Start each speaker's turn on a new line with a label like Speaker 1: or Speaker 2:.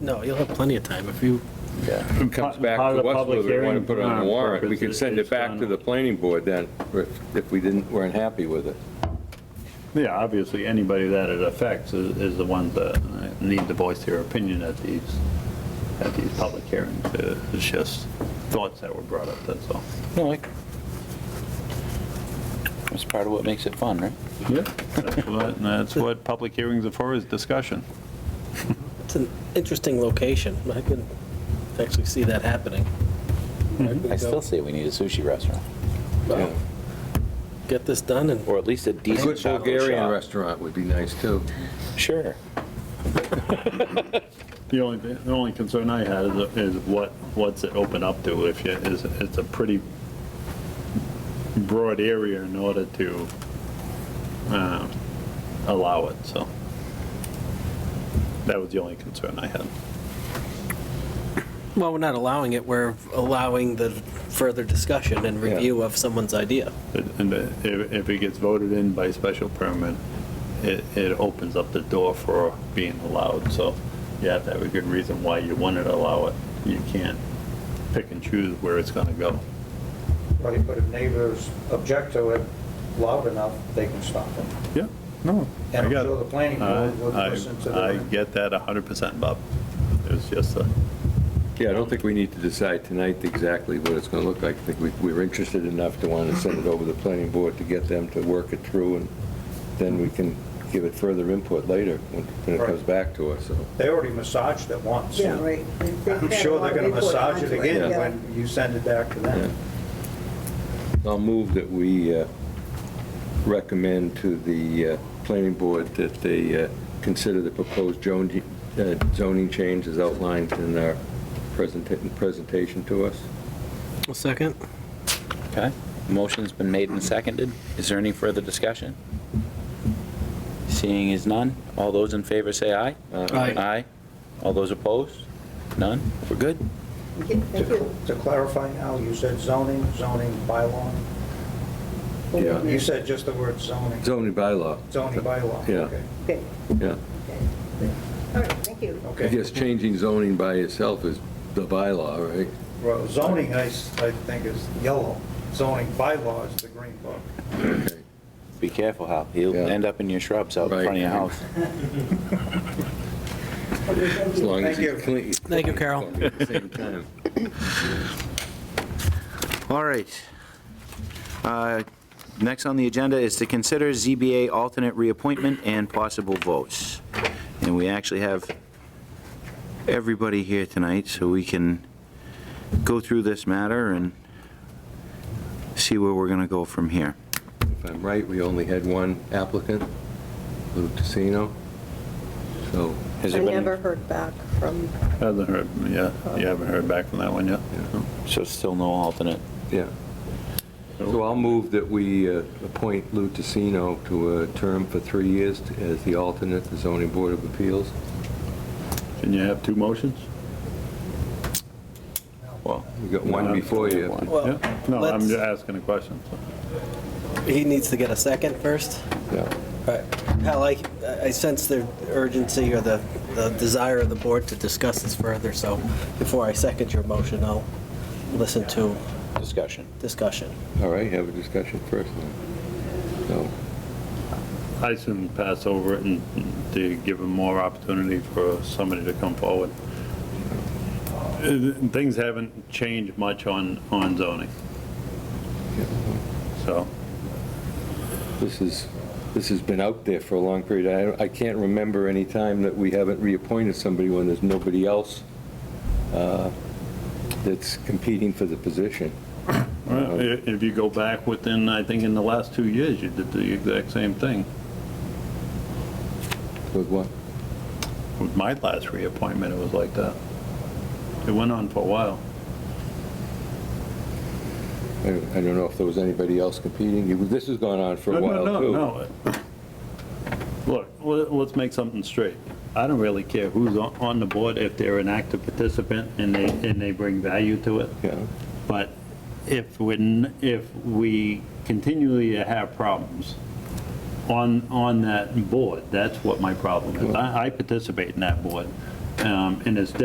Speaker 1: No, you'll have plenty of time if you,
Speaker 2: Yeah.
Speaker 3: It comes back
Speaker 2: Part
Speaker 3: to
Speaker 2: of the
Speaker 3: us
Speaker 2: public
Speaker 3: whether we want
Speaker 2: hearing,
Speaker 3: to put it on
Speaker 2: uh,
Speaker 3: the warrant. We can
Speaker 2: purpose
Speaker 3: send
Speaker 2: is
Speaker 3: it back to
Speaker 2: done.
Speaker 3: the planning board then, if if we didn't, weren't happy with it.
Speaker 2: Yeah, obviously, anybody that it affects is, is the one that uh, need to voice their opinion at these, at these public hearings. Uh, It's just thoughts that were brought up, that's all.
Speaker 4: No, I. That's part of what makes it fun, right?
Speaker 2: Yeah. That's what- and that's what public hearings are for, is discussion.
Speaker 1: it's an interesting location. I could actually see that happening.
Speaker 4: Mm-hmm. I still say we need a sushi restaurant,
Speaker 3: Yeah.
Speaker 1: Well, Get this done and
Speaker 4: or at least a
Speaker 3: A
Speaker 4: decent
Speaker 3: Good
Speaker 4: taco
Speaker 3: Bulgarian
Speaker 4: shop.
Speaker 3: restaurant would be nice, too.
Speaker 4: Sure.
Speaker 2: The only, the only concern I had is, is what, what's it open up to? If you, is, it's a pretty broad area in order to, um, allow it, so. That was the only concern I had.
Speaker 1: Well, we're not allowing it, we're allowing the further discussion and
Speaker 3: Yeah.
Speaker 1: review of someone's idea.
Speaker 2: And if, if it gets voted in by special permit, it, it opens up the door for being allowed, so you have to have a good reason why you wanted to allow it. You can't pick and choose where it's gonna go.
Speaker 5: Right, but if neighbors object to it loud enough, they can stop it.
Speaker 2: Yeah, no.
Speaker 5: And
Speaker 2: I
Speaker 5: I'm
Speaker 2: got
Speaker 5: sure the planning board would
Speaker 2: I,
Speaker 5: listen to
Speaker 2: I
Speaker 5: them.
Speaker 2: get that 100%, Bob. It's just a,
Speaker 3: Yeah, I don't think we need to decide tonight exactly what it's going to look like. I think we- we're interested enough to want to send it over to the planning board to get them to work it through, and then we can give it further input later when when it
Speaker 5: Right.
Speaker 3: comes back to us, so.
Speaker 5: They already massaged it once.
Speaker 6: Yeah, right.
Speaker 5: I'm sure they're gonna massage it again
Speaker 6: Yeah.
Speaker 5: when you send it back to them.
Speaker 3: I'll move that we uh, recommend to the uh, planning board that they uh, consider the proposed zone- uh, zoning change as outlined in our presenta- presentation to us.
Speaker 1: A second?
Speaker 4: Okay. Motion's been made and seconded. Is there any further discussion? Seeing is none. All those in favor say aye.
Speaker 1: Aye.
Speaker 4: Aye. All those opposed? None? We're good?
Speaker 6: Okay, Thank
Speaker 5: To
Speaker 6: you.
Speaker 5: to clarify now, you said zoning, zoning bylaw?
Speaker 3: Yeah.
Speaker 5: You said just the word zoning,
Speaker 3: Zoning bylaw,
Speaker 5: zoning bylaw?
Speaker 3: Yeah.
Speaker 5: Okay.
Speaker 6: Okay,
Speaker 3: yeah.
Speaker 6: okay. All right, thank you.
Speaker 3: I
Speaker 5: Okay.
Speaker 3: guess changing zoning by itself is the bylaw, right?
Speaker 5: Well, Zoning, I, s- I think is yellow, zoning bylaw is the green book.
Speaker 3: Okay.
Speaker 4: Be careful, Hal. You'll
Speaker 3: Yeah.
Speaker 4: end up in your shrubs out in
Speaker 3: Right.
Speaker 4: front of your house.
Speaker 6: Okay, thank
Speaker 3: As
Speaker 6: you.
Speaker 3: long as
Speaker 5: Thank
Speaker 3: it's
Speaker 5: you.
Speaker 3: clean.
Speaker 1: Thank you, Carol.
Speaker 3: At the same time.
Speaker 4: All right. Uh, Next on the agenda is to consider ZBA alternate reappointment and possible votes. And we actually have everybody here tonight, so we can go through this matter and see where we're going to go from here.
Speaker 3: If I'm right, we only had one applicant, Lou Casino. So,
Speaker 4: Has
Speaker 6: I
Speaker 4: there been-
Speaker 6: never heard back from,
Speaker 2: hasn't heard, yeah, you haven't heard back from that one yet?
Speaker 4: So still no alternate?
Speaker 3: yeah. So I'll move that we uh, appoint Lou Casino to a term for three years as the alternate, the zoning board of appeals.
Speaker 2: Can you have two motions? Well.
Speaker 3: We got one before you.
Speaker 1: Well,
Speaker 2: Yeah. No, I'm
Speaker 1: let's-
Speaker 2: just asking a question.
Speaker 1: He needs to get a second first?
Speaker 3: Yeah.
Speaker 1: All right. Hal, I, I sense the urgency or the, the desire of the board to discuss this further, so before I second your motion, I'll listen to
Speaker 4: Discussion.
Speaker 1: discussion.
Speaker 3: All right, have a discussion first. then. So,
Speaker 2: I assume pass over it and to give them more opportunity for somebody to come forward. Uh, Things haven't changed much on, on zoning, so.
Speaker 3: This is, this has been out there for a long period. I, I can't remember any time that we haven't reappointed somebody when there's nobody else uh, that's competing for the position.
Speaker 2: Well,
Speaker 3: Uh-huh.
Speaker 2: i- If you go back within, I think in the last two years, you did the exact same thing
Speaker 3: With what?
Speaker 2: with my last reappointment, it was like that. It went on for a while.
Speaker 3: I I don't know if there was anybody else competing. You- This has gone on for a
Speaker 2: No,
Speaker 3: while,
Speaker 2: no,
Speaker 3: too.
Speaker 2: no, no. Look, let- let's make something straight. I don't really care who's on on the board, if they're an active participant and they, and they bring value to it.
Speaker 3: Yeah.
Speaker 2: But if we, n- if we continually have problems on, on that board, that's what my problem is. I I participate in that board. um, and it's